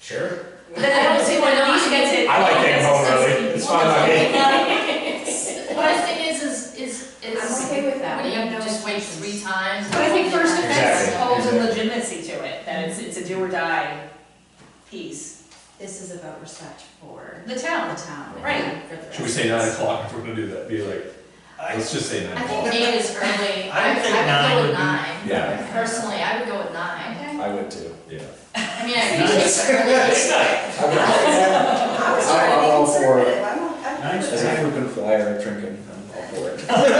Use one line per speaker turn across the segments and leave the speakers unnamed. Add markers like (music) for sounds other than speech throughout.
Sure.
Then I don't see why not.
I like taking home early, it's fine by me.
What I think is, is, is,
I'm
is,
okay with that.
when
We
you
have no
just wait
objections.
three times.
But I think first offense
Exactly,
holds a
exactly.
legitimacy to it, that it's, it's a do or die piece.
This is about respect for
The
the
town,
town.
Right.
For the
Should we say nine o'clock if we're gonna do that? Be like, let's just say nine
I
o'clock.
think eight is early,
I
I,
would think
I would
nine
go
would
with
be-
nine,
Yeah,
personally, I would go with nine.
Okay.
I would too.
yeah.
I mean, I think it's early,
It's not,
I would- yeah,
I was trying to
I'm
be
all for it.
conservative, I'm, I'm.
Nice.
As a frequent flyer of drinking, I'm all for it.
I would,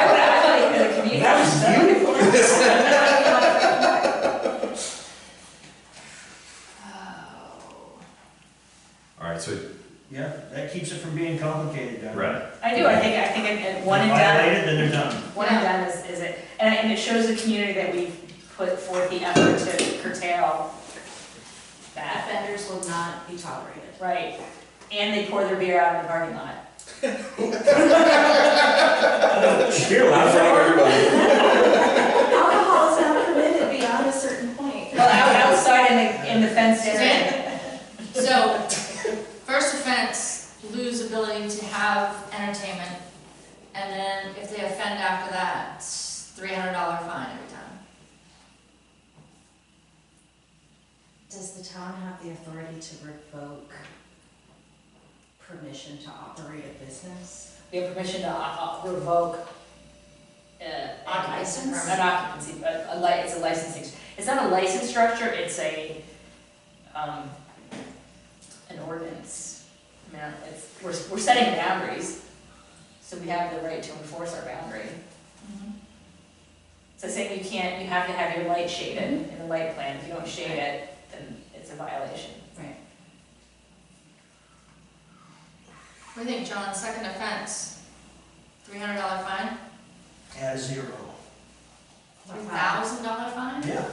I would, like, the community.
oh,
All right, so,
yeah, that keeps it from being complicated, Doug.
right.
I do, I think, I think it- it, one and
Violate
done,
it, then they're done.
one and done is, is it, and, and it shows the community that we've put forth the effort to curtail that,
Offenders will not be tolerated.
right? And they pour their beer out in the parking lot.
(laughs) You're
everybody.
Alcohol is not permitted beyond a certain point.
Well, out- outside in the, in the fenced area.
So, first offense, lose ability to have entertainment, and then if they offend after that, three hundred dollar fine every time.
Does the town have the authority to revoke permission to operate a business?
We have permission to uh, uh, revoke uh, an
Occupancy
license-
permit.
An occupancy, but a li, it's a licensing, it's not a license structure, it's a, um, an ordinance. I mean, it's, we're, we're setting boundaries, so we have the right to enforce our boundary. So saying you can't, you have to have your light shaded in the light plan, if you don't shade it, then it's a violation.
Right.
What do you think, John, second offense, three hundred dollar fine,
At zero.
Wow.
three thousand dollar fine?
Yeah.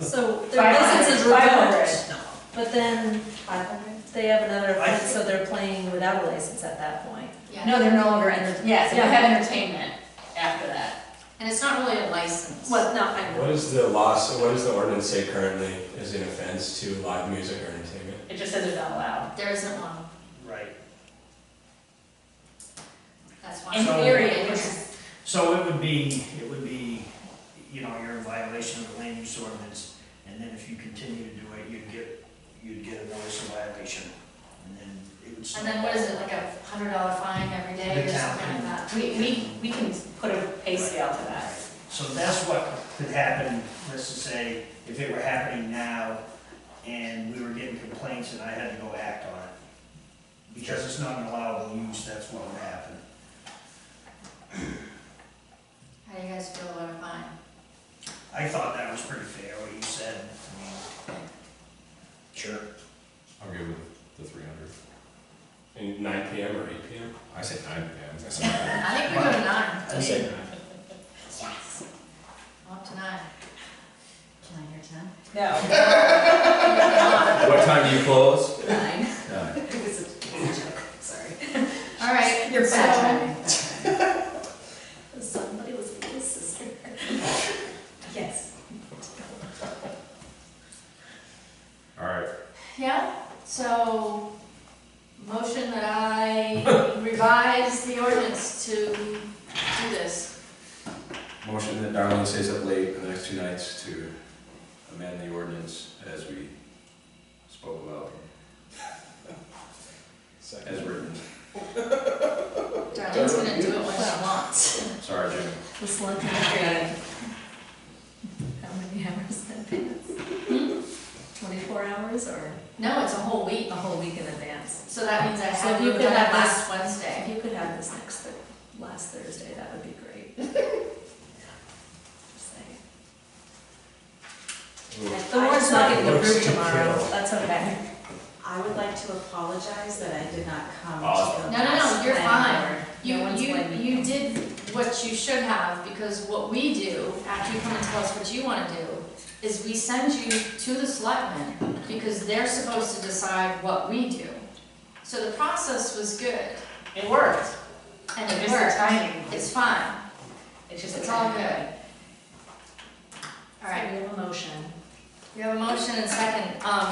So their
Five hundred-
license is
five hundred.
revoked, but then
Five hundred?
they have another
I-
offense, so they're playing without a license at that point.
Yeah.
No, they're no longer entertaining.
Yes, and we have entertainment after that.
And it's not really a license.
Well, not my.
What is the law, so what does the ordinance say currently is an offense to live music or entertainment?
It just says it's not allowed.
There isn't one,
Right.
that's why.
In
So-
theory, it was,
So it would be, it would be, you know, you're in violation of the land use ordinance, and then if you continue to do it, you'd get, you'd get a notice of violation, and then it would.
And then what is it, like a hundred dollar fine every day or something like that?
we, we, we can put a pay scale to that.
So that's what could happen, let's just say, if it were happening now, and we were getting complaints and I had to go act on it. Because it's not an allowable use, that's what would happen.
How do you guys feel about a fine?
I thought that was pretty fair, what you said, I mean.
Sure.
I'm good with the three hundred.
And nine PM or eight PM?
I said nine PM.
I think we go to nine,
I say nine.
yes. Up to nine.
Can I hear ten?
No.
What time do you close?
Nine.
Nine.
It was a it was a joke, sorry.
All right,
You're
so-
bad timing.
Somebody was a little sister.
Yes.
All right.
Yeah, so, motion that I (laughs) revise the ordinance to do this.
Motion that Darlene stays up late for the next two nights to amend the ordinance as we spoke about, as
Second.
written.
Darlene's gonna do it when she wants.
Sorry, Jim.
The slut in the grave. How many hours in advance?
Hmm?
Twenty-four hours or
No, it's a whole week,
a whole week in advance?
so that means I
So
have
you
to do
could
that
have
last
this-
Wednesday.
If you could have this next, Thur- last Thursday, that would be
(laughs)
great. Just saying. The warrant's not getting approved tomorrow, that's okay.
I would like to apologize that I did not come to the
Awesome.
last.
No, no, no, you're
planning
fine.
board.
You,
No one's
you,
blaming
you
you.
did what you should have, because what we do, after you come and tell us what you wanna do, is we send you to the selectmen, because they're supposed to decide what we do. So the process was good,
It worked.
and
It's
it
just the
worked,
timing.
it's fine.
It's just. the
It's all
timing.
good. All right,
We have a motion.
we have a motion and second, um,